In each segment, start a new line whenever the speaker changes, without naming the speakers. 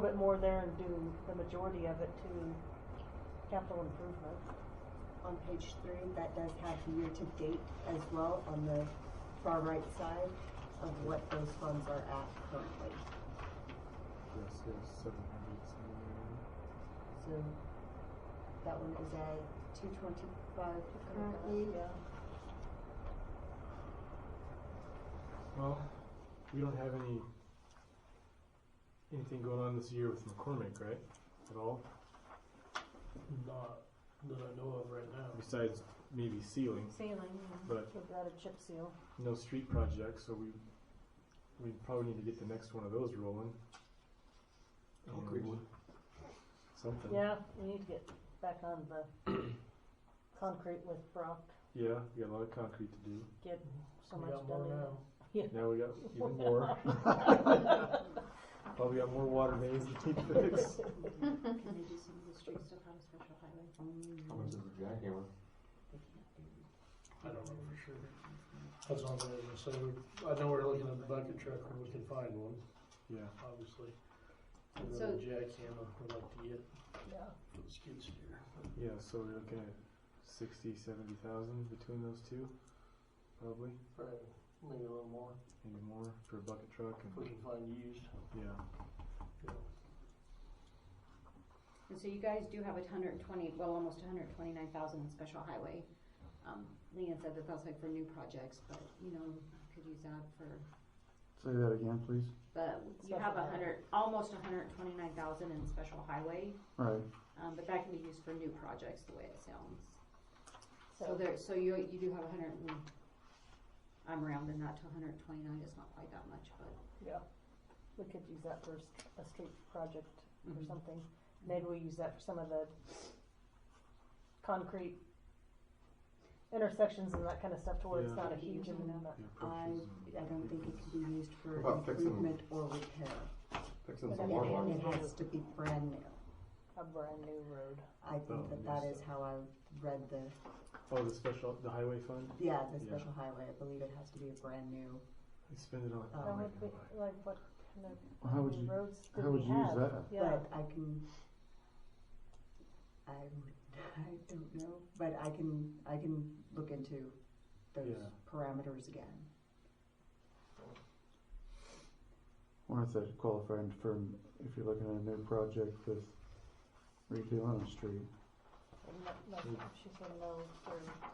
bit more there and do the majority of it to capital improvement.
On page three, that does have year-to-date as well on the far right side of what those funds are at currently.
Yes, there's seven hundred somewhere.
So that one is at two twenty-five currently.
Well, we don't have any, anything going on this year with McCormick, right? At all,
Not that I know of right now.
besides maybe sealing,
Ceiling,
But-
we've got a chip seal.
no street projects, so we, we probably need to get the next one of those rolling.
Concrete.
And Something.
Yeah, we need to get back on the concrete with Brock,
Yeah, we got a lot of concrete to do.
get so
We
much
got more
done.
now.
Now we got even more. Probably got more water mains to need fixed.
Can they do some of the streets still have a special highway?
How much is a jackhammer?
I don't know for sure. That's all I'm gonna say. We- I know we're looking at the bucket truck when we can find one,
Yeah,
obviously. And then
So-
the jackhammer, we'd like to get
Yeah.
for the skid steer.
yeah, so we're looking at sixty, seventy thousand between those two, probably,
Probably maybe a little more
maybe more for a bucket truck
if we
and,
can find used.
yeah.
you know.
And so you guys do have a hundred and twenty, well, almost a hundred and twenty-nine thousand in special highway. Um, Leanne said that that's like for new projects, but, you know, you could use that for,
Say that again, please.
but you have
Special
a hundred, almost a hundred and twenty-nine thousand in special highway.
Right.
Um, but that can be used for new projects, the way it sounds. So
So,
there, so you, you do have a hundred and, I'm rounding that to a hundred and twenty-nine, it's not quite that much, but.
yeah, we could use that for s- a street project or
Mhm.
something. Maybe we use that for some of the concrete intersections and that kind of stuff to where it's
Yeah.
not a huge amount.
the
I,
approaches and-
I don't think it can be used for
What about fixing-
improvement or repair.
Fixing
But I
some
mean,
water lines.
it-
It has to be brand new.
A brand new road.
I
Oh,
think that that
yes.
is how I read the,
Oh, the special, the highway fund,
yeah, the
Yeah.
special highway, I believe it has to be a brand new.
we spend it on.
Oh,
That
highway
would be,
fund.
like, what kind of
How would you,
roads did
how
we
would you use
have?
that?
Yeah,
But I can, I, I don't know, but I can, I can look into those
Yeah.
parameters again.
Well, if that's qualifying for, if you're looking at a new project with redoing a street.
and that- like she said, no,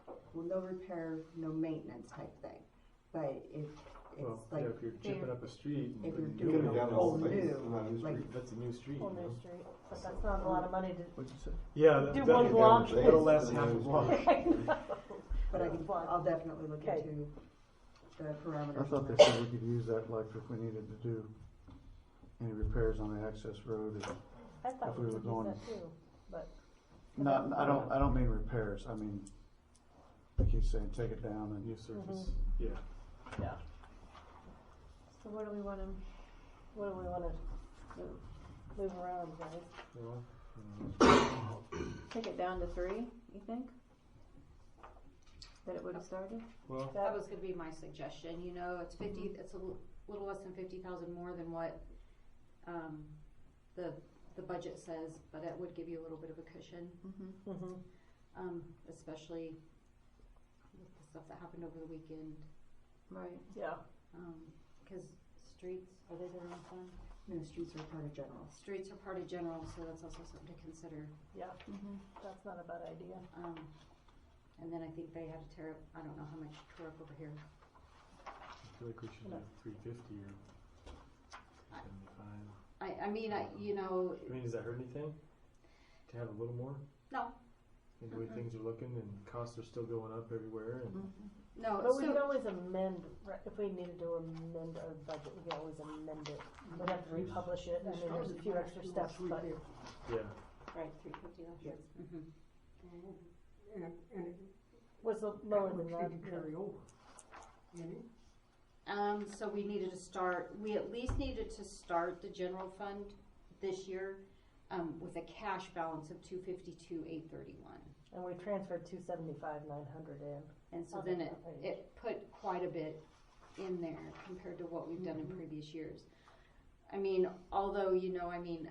for-
Well, no repair, no maintenance type thing, but if
Well,
it's
yeah,
like,
if you're chipping
they're-
up a street. and
if you're
putting
doing
new
it down
in,
all
that's-
new,
that's not a new
like-
street, That's a new street,
on
you
their
know?
street, but that's not a lot of money to.
What'd you say?
Yeah. that-
Do
that-
one
that-
block.
That'll last half a block.
I know.
but I can, I'll definitely look
Okay.
into the
I
parameters.
thought
on
they
that.
said we could use that, like, if we needed to do any repairs on the access road. or-
I thought
If
we
we were
could use
going-
that too, but.
Not, I don't, I don't mean repairs, I mean, like you saying, take it down and
New surface,
Mm-hmm.
yeah.
Yeah. So what do we wanna, what do we wanna do? move around, guys?
Well, I don't know.
Take it down to three, you think? That it would have started?
Well,
That
That
was gonna be my suggestion, you know, it's fifty, it's a l- little less than fifty thousand more than what, um, the, the budget says, but it would give you a little bit of a cushion,
Mm-hmm.
Mhm.
um, especially with the stuff that happened over the weekend,
Right.
Yeah,
um, cause streets, are they their own fund?
No, streets are part of general.
Streets are part of general, so that's also something to consider,
yeah,
Mm-hmm.
that's not a bad idea.
um, and then I think they had to tear up, I don't know how much tore up over here,
I feel like we should
No.
have three fifty or seventy-five.
I, I mean, I, you know,
I mean, does that hurt anything to have a little more?
No.
And the way
Mhm.
things are looking and costs are still going up everywhere and
no,
But we
Oh, so-
could always amend, right, if we needed to amend our budget, we could always amend it. We'd have to republish it, I mean, there's a few extra steps, but
Yeah,
Right, three fifty last year.
was the- lower than that.
Um, so we needed to start, we at least needed to start the general fund this year, um, with a cash balance of two fifty-two, eight thirty-one.
And we transferred two seventy-five, nine hundred in.
And so
Okay,
then it,
okay.
it put quite a bit in there compared to what we've done in previous years. I mean, although, you know, I mean,